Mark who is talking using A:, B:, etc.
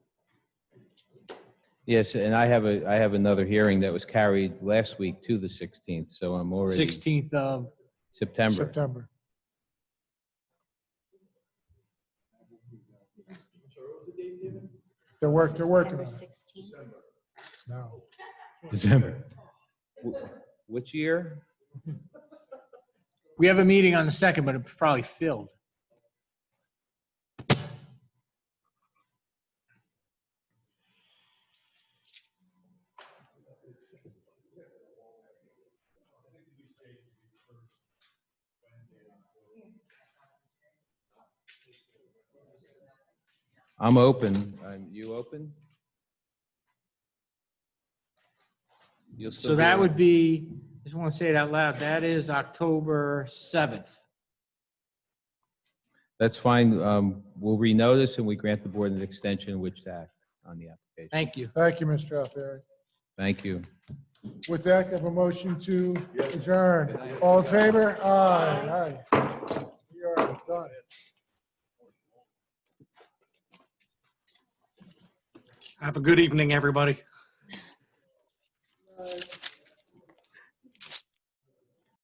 A: Yes, and I have a, I have another hearing that was carried last week to the 16th, so I'm already
B: 16th of
A: September.
B: September. They're work, they're working on
C: September
B: it
C: 16th.
B: now.
A: December. Wh- Which year?
D: We have a meeting on the second, but it's probably filled.
A: I'm open. I'm, you open? You'll still
D: So
A: be
D: that
A: on-
D: would be, I just want to say it out loud, that is October 7th.
A: That's fine. Um, we'll renotice and we grant the board an extension which to act on the application.
D: Thank you.
B: Thank you, Mr. Alfieri.
A: Thank you.
B: With that, I have a motion to adjourn. All in favor? Aye, aye. We are done.
E: Have a good evening, everybody.